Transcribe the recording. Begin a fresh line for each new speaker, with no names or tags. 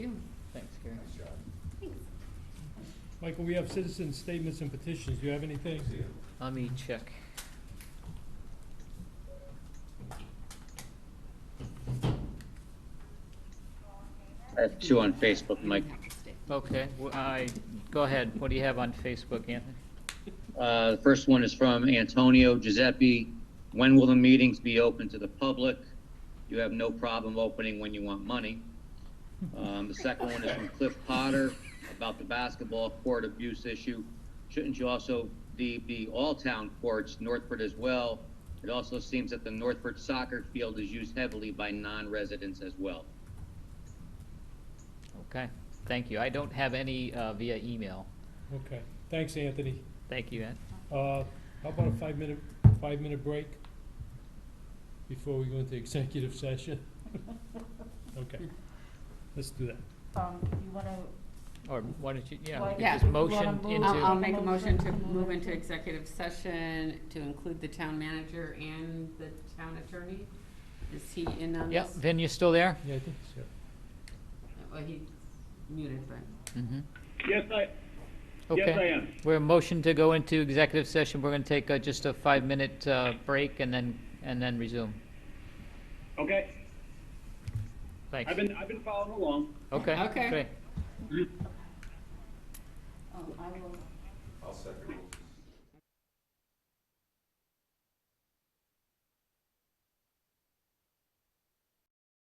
you. Thanks, Gary.
Michael, we have citizen statements and petitions. Do you have anything?
Let me check.
I have two on Facebook, Mike.
Okay, well, I, go ahead. What do you have on Facebook, Anthony?
Uh, The first one is from Antonio Giuseppe. When will the meetings be open to the public? You have no problem opening when you want money. Um, The second one is from Cliff Potter about the basketball court abuse issue. Shouldn't you also, the, the all-town courts, Northford as well, it also seems that the Northford soccer field is used heavily by non-residents as well.
Okay, thank you. I don't have any uh, via email.
Okay, thanks, Anthony.
Thank you, Ed.
Uh, How about a five-minute, five-minute break before we go into executive session? Okay, let's do that.
Um, you wanna,
Or why don't you, yeah, we
Why-
could
Yeah,
just
you wanna
motion
move-
into.
I'll, I'll make a
Motion
motion
to
to
move
move
into-
into executive session to include the town manager and the town attorney. Is he in on
Yeah,
this?
Vin, you still there?
Yeah, I think so.
Well, he's muted, but.
Mm-hmm.
Yes, I, yes, I
Okay,
am.
we're motion to go into executive session. We're gonna take uh, just a five-minute uh, break and then, and then resume.
Okay,
Thanks.
I've been, I've been following along.
Okay,
Okay.
great.
oh, I will.